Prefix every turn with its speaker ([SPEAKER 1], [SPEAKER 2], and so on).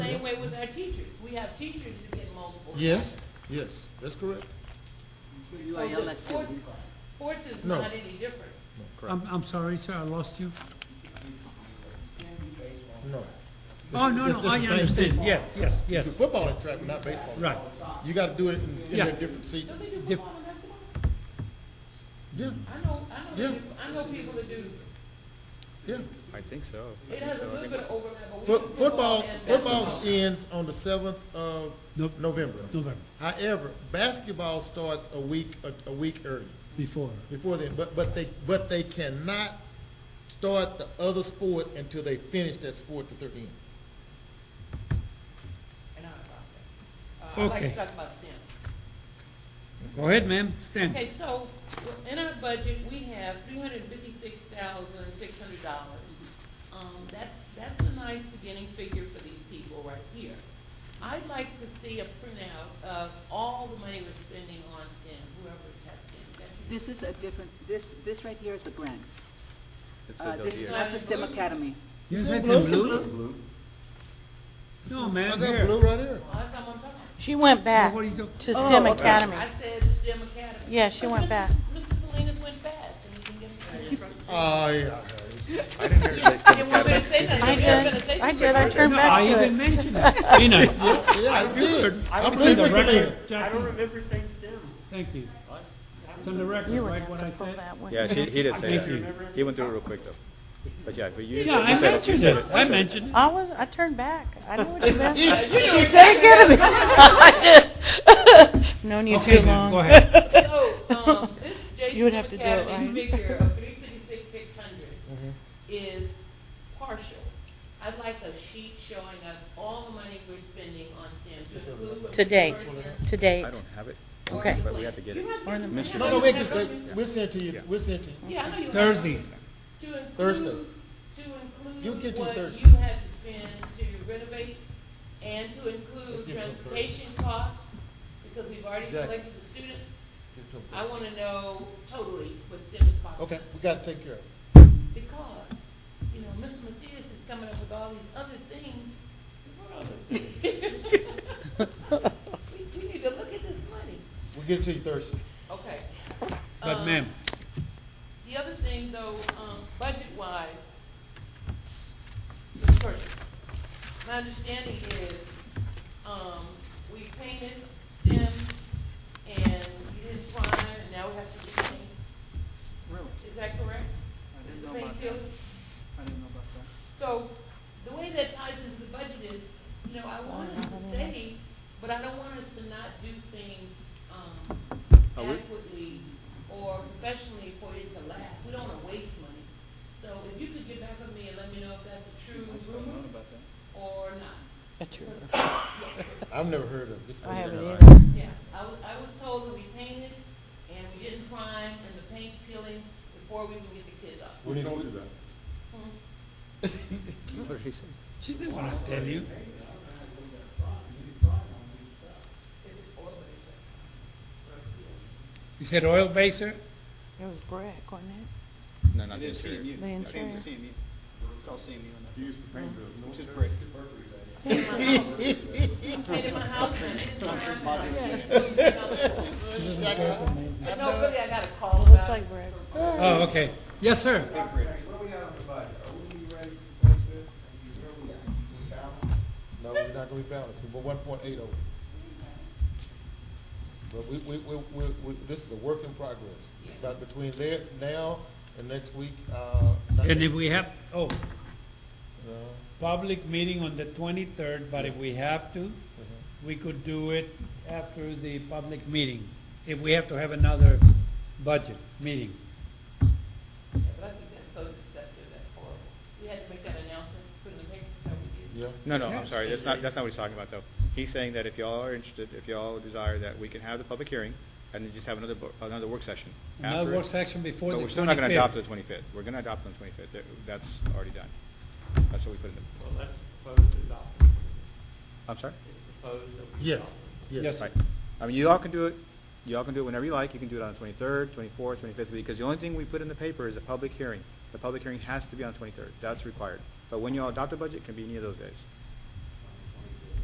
[SPEAKER 1] way with our teachers. We have teachers who get multiple.
[SPEAKER 2] Yes, yes, that's correct.
[SPEAKER 1] So the sports, sports is
[SPEAKER 2] No.
[SPEAKER 1] not any different.
[SPEAKER 2] No,
[SPEAKER 3] I'm, I'm sorry, sir, I lost you.
[SPEAKER 2] No.
[SPEAKER 3] Oh, no,
[SPEAKER 2] It's-
[SPEAKER 3] no,
[SPEAKER 2] it's
[SPEAKER 3] I
[SPEAKER 2] the same
[SPEAKER 3] understand,
[SPEAKER 2] season.
[SPEAKER 3] yes, yes,
[SPEAKER 2] You do
[SPEAKER 3] yes,
[SPEAKER 2] football and track, but not baseball.
[SPEAKER 3] right.
[SPEAKER 2] You gotta do it in, in
[SPEAKER 3] Yeah.
[SPEAKER 2] their different
[SPEAKER 1] Don't
[SPEAKER 2] seasons.
[SPEAKER 1] they do
[SPEAKER 3] Yep.
[SPEAKER 1] football and basketball?
[SPEAKER 2] Yeah,
[SPEAKER 1] I know, I know, they
[SPEAKER 2] Yeah.
[SPEAKER 1] do- I know people that do.
[SPEAKER 2] yeah.
[SPEAKER 4] I think so. I
[SPEAKER 1] It
[SPEAKER 4] think
[SPEAKER 1] has a
[SPEAKER 4] so. I
[SPEAKER 1] little
[SPEAKER 4] think-
[SPEAKER 1] bit of overlap, but we
[SPEAKER 2] Foot,
[SPEAKER 1] do
[SPEAKER 2] football,
[SPEAKER 1] and
[SPEAKER 2] football
[SPEAKER 1] basketball.
[SPEAKER 2] ends on the seventh of
[SPEAKER 3] Nope.
[SPEAKER 2] November.
[SPEAKER 3] November,
[SPEAKER 2] However, basketball starts a week, a, a week early
[SPEAKER 3] before.
[SPEAKER 2] before then, but, but they, but they cannot start the other sport until they finish that sport that they're in.
[SPEAKER 1] And I'm about that. Uh, I like to
[SPEAKER 3] Okay.
[SPEAKER 1] talk about STEM.
[SPEAKER 3] Go ahead, ma'am, stand.
[SPEAKER 1] Okay, so in our budget, we have three hundred fifty-six thousand, six hundred dollars. Um, that's, that's a nice beginning figure for these people right here. I'd like to see a printout of all the money we're spending on STEM, whoever has STEM. That's-
[SPEAKER 5] This is a different, this, this right here is a grant.
[SPEAKER 4] It
[SPEAKER 5] Uh,
[SPEAKER 4] says out
[SPEAKER 5] This is
[SPEAKER 4] here.
[SPEAKER 5] not the STEM Academy.
[SPEAKER 3] You
[SPEAKER 2] Is it
[SPEAKER 3] have
[SPEAKER 2] blue?
[SPEAKER 3] some blue? No,
[SPEAKER 2] I
[SPEAKER 3] ma'am,
[SPEAKER 2] got blue
[SPEAKER 3] here.
[SPEAKER 2] right here.
[SPEAKER 1] Oh, that's not what I'm talking about.
[SPEAKER 6] She went back
[SPEAKER 3] What do Oh, you go-
[SPEAKER 6] to STEM
[SPEAKER 5] okay.
[SPEAKER 6] Academy.
[SPEAKER 1] I said STEM Academy.
[SPEAKER 6] Yeah, she
[SPEAKER 1] But
[SPEAKER 6] went
[SPEAKER 1] Mrs.
[SPEAKER 6] back.
[SPEAKER 1] Mrs. Salinas went fast, and we can give her.
[SPEAKER 2] Ah, yeah.
[SPEAKER 4] I didn't hear it say STEM
[SPEAKER 1] And we better
[SPEAKER 4] Academy.
[SPEAKER 1] say that.
[SPEAKER 6] I
[SPEAKER 1] We better say
[SPEAKER 6] did,
[SPEAKER 1] that.
[SPEAKER 6] I did, I turned
[SPEAKER 3] No, I
[SPEAKER 6] back to
[SPEAKER 3] even
[SPEAKER 6] it.
[SPEAKER 3] mentioned it. You know,
[SPEAKER 2] Yeah, I did. I
[SPEAKER 3] It's
[SPEAKER 2] believe
[SPEAKER 3] on the
[SPEAKER 2] Mr. Lena.
[SPEAKER 3] record, Jackie,
[SPEAKER 7] remember saying STEM.
[SPEAKER 3] thank you. It's on the record,
[SPEAKER 6] You would
[SPEAKER 3] right,
[SPEAKER 6] have
[SPEAKER 3] what
[SPEAKER 6] to
[SPEAKER 3] I
[SPEAKER 6] pull
[SPEAKER 3] said?
[SPEAKER 6] that one.
[SPEAKER 4] Yeah, she, he did say
[SPEAKER 3] Thank
[SPEAKER 4] that. He went through it real quick though. But yeah, but you.
[SPEAKER 3] Yeah,
[SPEAKER 4] you
[SPEAKER 3] I
[SPEAKER 4] said you
[SPEAKER 3] mentioned
[SPEAKER 4] said
[SPEAKER 3] it,
[SPEAKER 4] You
[SPEAKER 3] I
[SPEAKER 4] said
[SPEAKER 3] mentioned it.
[SPEAKER 6] I was, I turned back. I know what you meant.
[SPEAKER 1] She
[SPEAKER 6] Known you
[SPEAKER 3] Okay,
[SPEAKER 6] too
[SPEAKER 3] ma'am, go
[SPEAKER 6] long.
[SPEAKER 3] ahead.
[SPEAKER 1] So, um, this
[SPEAKER 6] You
[SPEAKER 1] Jason
[SPEAKER 6] would have to do it,
[SPEAKER 1] Academy
[SPEAKER 6] right?
[SPEAKER 1] figure of three fifty-six, six hundred
[SPEAKER 4] Mm-hmm.
[SPEAKER 1] is partial. I'd like a sheet showing us all the money we're spending on STEM to include. what
[SPEAKER 6] To
[SPEAKER 1] we
[SPEAKER 6] date.
[SPEAKER 1] purchased
[SPEAKER 6] To
[SPEAKER 4] I
[SPEAKER 6] date.
[SPEAKER 4] don't have it,
[SPEAKER 1] or
[SPEAKER 6] Okay.
[SPEAKER 4] but we have to get it.
[SPEAKER 1] You have to-
[SPEAKER 6] Or in the
[SPEAKER 1] you
[SPEAKER 4] minutes.
[SPEAKER 1] have
[SPEAKER 2] No,
[SPEAKER 1] to
[SPEAKER 2] no, wait,
[SPEAKER 1] have
[SPEAKER 2] just,
[SPEAKER 1] it.
[SPEAKER 2] wait. we'll send it to you,
[SPEAKER 4] Yeah.
[SPEAKER 2] we'll send it to you.
[SPEAKER 1] Yeah, I know you. have
[SPEAKER 3] Thursday.
[SPEAKER 1] To include.
[SPEAKER 2] Thursday.
[SPEAKER 1] To
[SPEAKER 2] You'll get
[SPEAKER 1] include
[SPEAKER 2] to
[SPEAKER 1] what
[SPEAKER 2] Thursday.
[SPEAKER 1] you had to spend to renovate and to
[SPEAKER 2] Let's
[SPEAKER 1] include
[SPEAKER 2] get to Thursday.
[SPEAKER 1] transportation costs, because we've already
[SPEAKER 2] Exactly.
[SPEAKER 1] selected the students.
[SPEAKER 2] Give it to 'em
[SPEAKER 1] I
[SPEAKER 2] first.
[SPEAKER 1] wanna know totally what STEM is possible.
[SPEAKER 2] Okay, we gotta take care of it.
[SPEAKER 1] because, you know, Mr. Macias is coming up with all these other things. What other things? We, we need to look at this money.
[SPEAKER 2] We'll get it to you Thursday.
[SPEAKER 1] Okay.
[SPEAKER 3] But
[SPEAKER 6] Uh,
[SPEAKER 1] Um,
[SPEAKER 3] ma'am,
[SPEAKER 1] The other thing though, um, budget-wise, the purchase. My understanding is, um, we painted them and you did prime and now we have to repaint.
[SPEAKER 5] Really?
[SPEAKER 1] Is that correct?
[SPEAKER 5] I didn't
[SPEAKER 1] The
[SPEAKER 5] know
[SPEAKER 1] paint
[SPEAKER 5] about
[SPEAKER 1] field?
[SPEAKER 5] that. I didn't know about that.
[SPEAKER 1] So, the way that ties into the budget is, you know, I want us to save, but I don't want us to not do things, um,
[SPEAKER 4] Are we-
[SPEAKER 1] adequately or professionally for it to last. We don't wanna waste money. So if you could get back with me and let me know if that's a true rumor or not.
[SPEAKER 2] I've never heard of this.
[SPEAKER 6] I haven't
[SPEAKER 2] one.
[SPEAKER 6] either.
[SPEAKER 1] Yeah, I was, I was told that we painted and we didn't prime and the paint's peeling before we can get the kids up.
[SPEAKER 2] We need to do that.
[SPEAKER 4] What did he say?
[SPEAKER 3] she didn't want to tell you. You said oil baser?
[SPEAKER 6] It was brick, wasn't it?
[SPEAKER 4] No, not
[SPEAKER 7] It
[SPEAKER 4] the
[SPEAKER 7] is
[SPEAKER 4] interior.
[SPEAKER 7] CMU.
[SPEAKER 6] The
[SPEAKER 7] I think
[SPEAKER 6] interior.
[SPEAKER 7] It's CMU. It's all CMU on that. Which is brick.
[SPEAKER 1] Painted my house and it didn't prime. and I got- No, really, I got a call
[SPEAKER 6] Looks
[SPEAKER 1] about it.
[SPEAKER 6] like brick.
[SPEAKER 3] Oh, okay. Yes, sir.
[SPEAKER 8] What do we have on the budget? Are we ready for the budget? Are you ready? We balance?
[SPEAKER 2] No, we're not gonna be balanced, we're one point eight over. But we, we, we, we, we, this is a work in progress. About between there, now and next week, uh. not-
[SPEAKER 3] And if we have, oh,
[SPEAKER 2] No,
[SPEAKER 3] public meeting on the twenty-third, but if we have to,
[SPEAKER 4] Mm-hmm.
[SPEAKER 3] we could do it after the public meeting, if we have to have another budget meeting.
[SPEAKER 1] Yeah, But I think that's so deceptive, that's horrible. We had to make that announcement, put in the paper, so we did.
[SPEAKER 2] yeah,
[SPEAKER 4] No, no, I'm sorry, that's not, that's not what he's talking about, though. He's saying that if y'all are interested, if y'all desire that, we can have the public hearing, and then just have another, bo- another work session
[SPEAKER 3] Another
[SPEAKER 4] after.
[SPEAKER 3] work
[SPEAKER 4] it.
[SPEAKER 3] session before the
[SPEAKER 4] But we're
[SPEAKER 3] twenty-fifth.
[SPEAKER 4] still not gonna adopt the twenty-fifth, we're gonna adopt on the twenty-fifth, that's already done. That's what we put in the,
[SPEAKER 7] Well, that's proposed to adopt.
[SPEAKER 4] I'm sorry?
[SPEAKER 7] It's proposed that we
[SPEAKER 2] yes,
[SPEAKER 7] adopt.
[SPEAKER 2] yes.
[SPEAKER 4] Right. I mean, you all can do it, you all can do it whenever you like, you can do it on the twenty-third, twenty-fourth, twenty-fifth, because the only thing we put in the paper is a public hearing. The public hearing has to be on the twenty-third, that's required. But when you all adopt a budget, it can be any of those days.